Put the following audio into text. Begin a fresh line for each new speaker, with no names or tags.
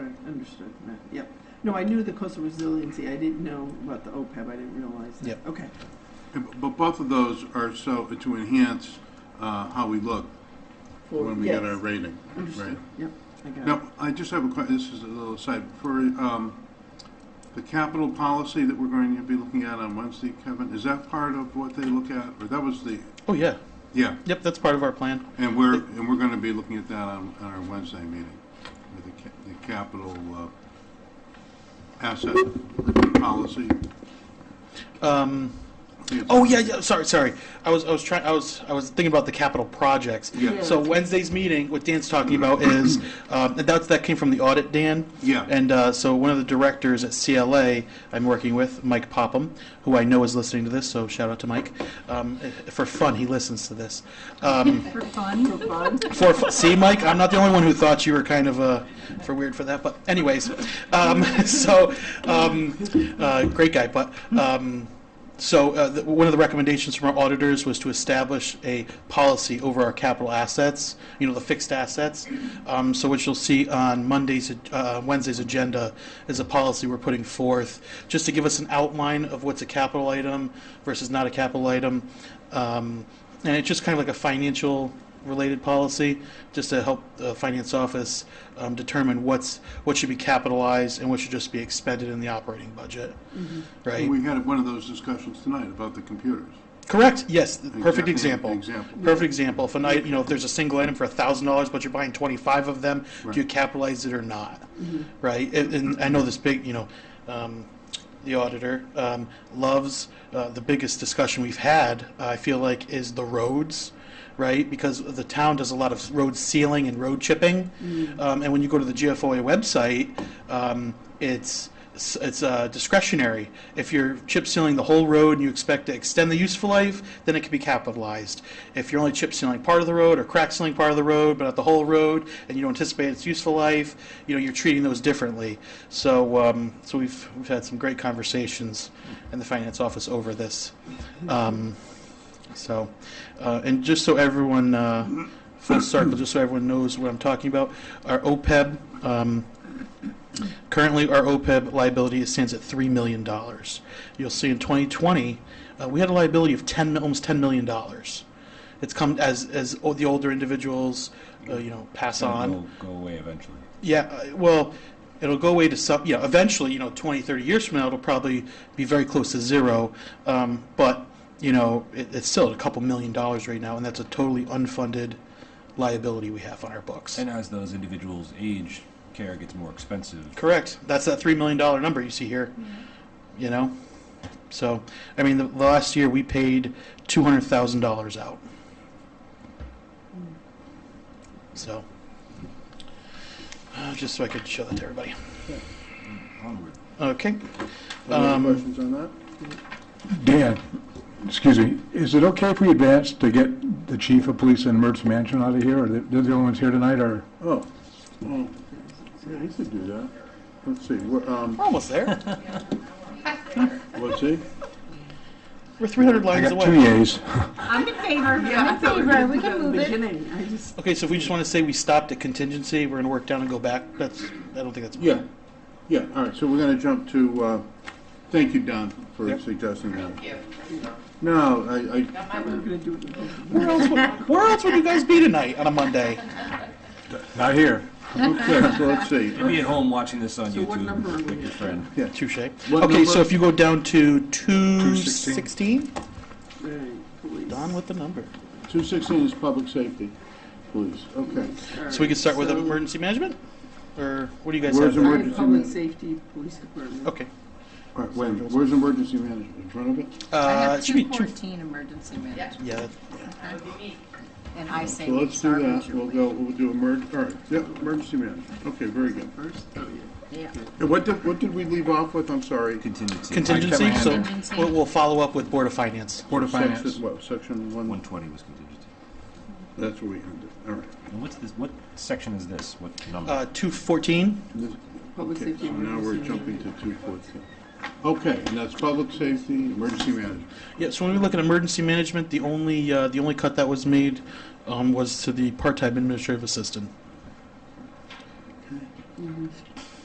Understood, right, yep. No, I knew the coastal resiliency, I didn't know about the OPEB, I didn't realize that.
Yep.
Okay,
And b- But both of those are so, to enhance uh, how we look
For-
when we get our
yes.
rating. right?
understood, yep, I got it.
Now, I just have a question, this is a little aside, for um, the capital policy that we're going to be looking at on Wednesday, Kevin, is that part of what they look at? Or that was the,
Oh, yeah.
yeah,
Yep, that's part of our plan.
and we're, and we're going to be looking at that on, on our Wednesday meeting, with the ca- the capital uh, asset policy.
Um,
I think it's-
oh, yeah, yeah, sorry, sorry. I was, I was trying, I was, I was thinking about the capital projects.
Yeah.
So Wednesday's meeting, what Dan's talking about is, um, and that's, that came from the audit, Dan.
Yeah.
And uh, so one of the directors at CLA I'm working with, Mike Popham, who I know is listening to this, so shout out to Mike. Um, for fun, he listens to this. Um,
For fun? For fun,
for fu- see, Mike, I'm not the only one who thought you were kind of uh, for weird for that. But anyways, um, so um, uh, great guy. But um, so uh, the, one of the recommendations from our auditors was to establish a policy over our capital assets. You know, the fixed assets. Um, so what you'll see on Monday's, uh, Wednesday's agenda is a policy we're putting forth just to give us an outline of what's a capital item versus not a capital item. Um, and it's just kind of like a financial related policy, just to help the finance office um, determine what's, what should be capitalized and what should just be expended in the operating budget, right?
We had one of those discussions tonight about the computers.
Correct, yes, the perfect
Example-
example.
example.
Perfect example, if an item, you know, if there's a single item for a thousand dollars, but you're buying twenty-five of them,
Right.
do you capitalize it or not? Right, and, and I know this big, you know, um, the auditor, um, loves, uh, the biggest discussion we've had, I feel like, is the roads, right? Because the town does a lot of road sealing and road chipping, um, and when you go to the GFOA website, um, it's, s- it's uh, discretionary. If you're chip sealing the whole road and you expect to extend the useful life, then it can be capitalized. If you're only chip sealing part of the road or crack sealing part of the road, but not the whole road, and you don't anticipate its useful life, you know you're treating those differently. So, um, so we've we've had some great conversations in the finance office over this. Um, so, uh, and just so everyone, uh, full circle, just so everyone knows what I'm talking about, our OPEB, um, currently our OPEB liability stands at $3 million. You'll see in 2020, uh, we had a liability of 10, almost $10 million. It's come as, as o- the older individuals, uh, you know, pass
It'll
on.
Go, go away eventually.
Yeah, uh, well, it'll go away to some, you know, eventually, you know, 20, 30 years from now, it'll probably be very close to zero. Um, but, you know, it, it's still at a couple million dollars right now, and that's a totally unfunded liability we have on our books.
And as those individuals age, care gets more expensive.
Correct. That's that $3 million number you see here, you know? So, I mean, the, the last year we paid $200,000 out. So, uh, just so I could show that to everybody.
Onward.
Okay.
Any
Um,
questions on that?
Dan, excuse me, is it okay if we advance to get the chief of police and emergency management out of here? Or they're they're the only ones here tonight, or?
Oh, well, yeah, you could do that. Let's see, we're, um,
We're almost there.
let's see.
We're 300
I
lines
got two
away.
yays.
I'm in favor, I'm in favor, we can move it.
beginning, I just,
Okay, so if we just want to say we stopped at contingency, we're going to work down and go back. That's, I don't think that's.
Yeah, yeah, all right, so we're gonna jump to, uh, thank you, Don, for suggesting that. Thank you. No, I, I,
we're gonna do it.
Where else, would, where else would you guys be tonight on a Monday?
Not here.
okay, so let's see.
You'd be at home watching this on
So
YouTube
what number are we
with your
at?
friend.
Touche. Okay,
What number?
so if you go down to
216.
216,
Right, police.
Don with the number.
Two sixteen is public safety, please, okay.
So we can start with
So-
emergency management? Or what do you guys
Where's
have? there?
Emergency
Public
man-
safety, police department.
Okay.
All right, wait, a minute. where's emergency management, in front of it?
I
Uh,
have
it should be
two
two.
fourteen emergency management,
Yeah.
and I say
So
we
let's do
start with
that, we'll
Julie.
go, we'll do emerg, all right, yep, emergency management, okay, very good.
First, oh, yeah.
Yeah.
And what did, what did we leave off with, I'm sorry?
Contingency.
Contingency, so
Contingency.
we'll, we'll follow up with Board of Finance.
Board of
Section-
Finance.
What, section one,
120 was contingency.
that's where we ended, all right.
And what's this? What section is this? What number?
Uh, 214.
This-
Public
okay,
safety
So now we're
emergency
jumping to two fourteen. Okay, and that's public safety, emergency management.
Yeah, so when we look at emergency management, the only, uh, the only cut that was made um, was to the part-time administrative assistant.